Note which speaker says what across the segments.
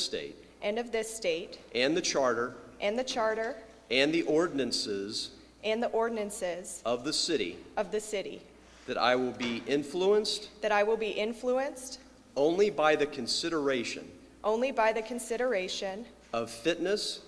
Speaker 1: state
Speaker 2: and of this state,
Speaker 1: and the charter
Speaker 2: and the charter
Speaker 1: and the ordinances
Speaker 2: and the ordinances
Speaker 1: of the city,
Speaker 2: of the city,
Speaker 1: that I will be influenced
Speaker 2: that I will be influenced
Speaker 1: only by the consideration
Speaker 2: only by the consideration
Speaker 1: of fitness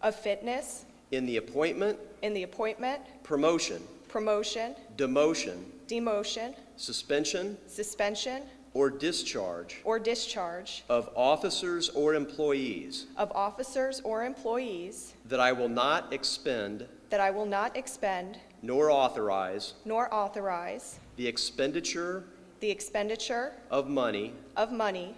Speaker 2: of fitness
Speaker 1: in the appointment,
Speaker 2: in the appointment,
Speaker 1: promotion,
Speaker 2: promotion,
Speaker 1: demotion,
Speaker 2: demotion,
Speaker 1: suspension,
Speaker 2: suspension,
Speaker 1: or discharge
Speaker 2: or discharge
Speaker 1: of officers or employees,
Speaker 2: of officers or employees,
Speaker 1: that I will not expend
Speaker 2: that I will not expend
Speaker 1: nor authorize
Speaker 2: nor authorize
Speaker 1: the expenditure
Speaker 2: the expenditure
Speaker 1: of money
Speaker 2: of money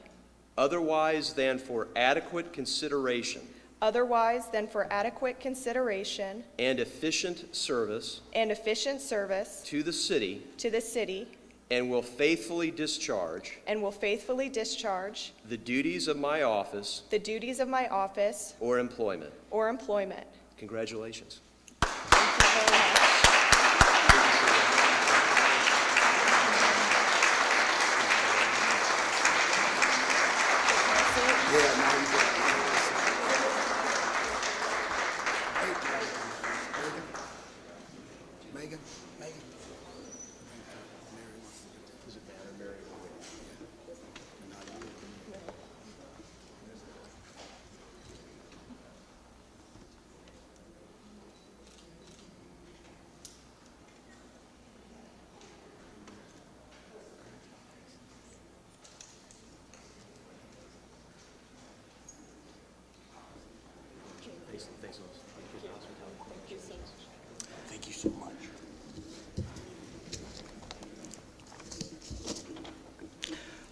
Speaker 1: otherwise than for adequate consideration
Speaker 2: otherwise than for adequate consideration
Speaker 1: and efficient service
Speaker 2: and efficient service
Speaker 1: to the city
Speaker 2: to the city,
Speaker 1: and will faithfully discharge
Speaker 2: and will faithfully discharge
Speaker 1: the duties of my office
Speaker 2: the duties of my office
Speaker 1: or employment.
Speaker 2: or employment.
Speaker 1: Congratulations.
Speaker 2: Thank you very much.
Speaker 3: Yeah, now you get it. Megan, Megan, Megan. Does it matter, Mary? Thank you so much.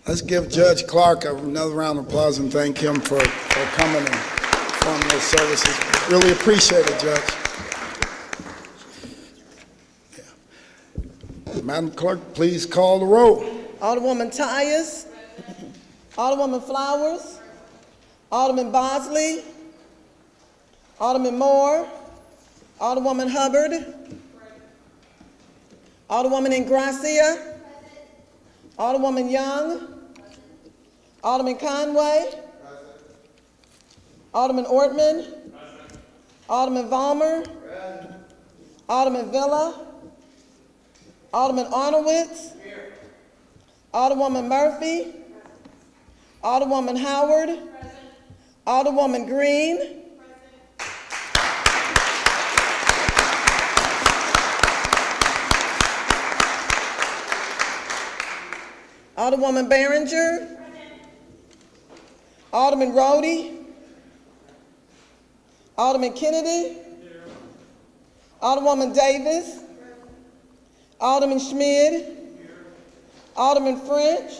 Speaker 3: Let's give Judge Clark another round of applause and thank him for, for coming and performing his services. Really appreciate it, Judge. Madam Clerk, please call the roll.
Speaker 4: Alderwoman Tyers. Alderwoman Flowers. Alderman Bosley. Alderman Moore. Alderwoman Hubbard. Alderwoman Ingracia. Alderwoman Young. Alderman Conway. Alderman Ortman. Alderman Valmer. Alderman Villa. Alderman Arnowitz. Alderwoman Murphy. Alderwoman Howard. Alderwoman Green. Alderwoman Behringer. Alderman Rhodey. Alderman Kennedy. Alderwoman Davis. Alderman Schmidt. Alderman French.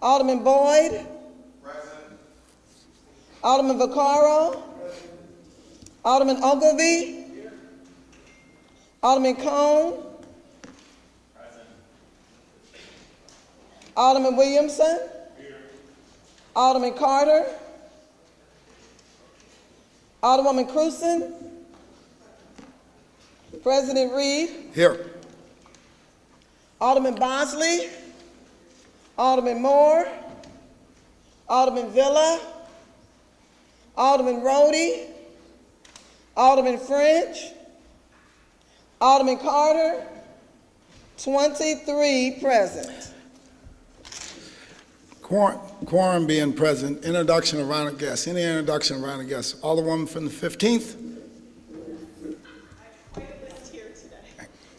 Speaker 4: Alderman Boyd. Alderman Vaccaro. Alderman Ogilvy. Alderman Cone. Alderman Williamson. Alderman Carter. Alderwoman Cruzen. President Reed.
Speaker 3: Here.
Speaker 4: Alderman Bosley, Alderman Moore, Alderman Villa, Alderman Rhodey, Alderman French, Alderman Carter, 23 present.
Speaker 3: Quor- Quorum being present, introduction of honored guests, any introduction of honored guests. Alderwoman from the 15th?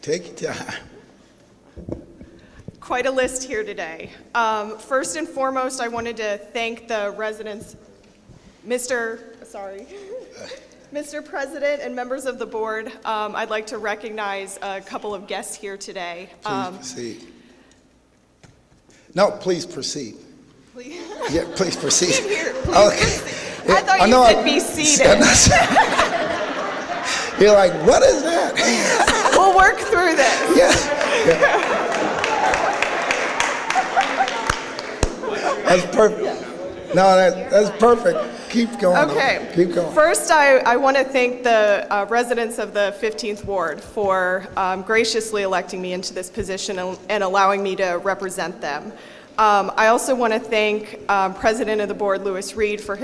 Speaker 3: Take your time.
Speaker 2: quite a list here today. Um, First and foremost, I wanted to thank the residents, Mr., sorry, Mr. President and members of the board. Um, I'd like to recognize a couple of guests here today. Um,
Speaker 3: Please proceed. No, please proceed.
Speaker 2: Please.
Speaker 3: Yeah, please proceed.
Speaker 2: Here, please
Speaker 3: Okay.
Speaker 2: I thought
Speaker 3: know
Speaker 2: you said be seated.
Speaker 3: You're like, what is that?
Speaker 2: We'll work through this.
Speaker 3: Yeah. That's perfect. No, that, that's perfect. Keep going. though.
Speaker 2: Okay.
Speaker 3: Keep going.
Speaker 2: First, I, I want to thank the uh, residents of the 15th Ward for um, graciously electing me into this position and and allowing me to represent them. Um, I also want to thank um, President of the Board, Lewis Reed, for his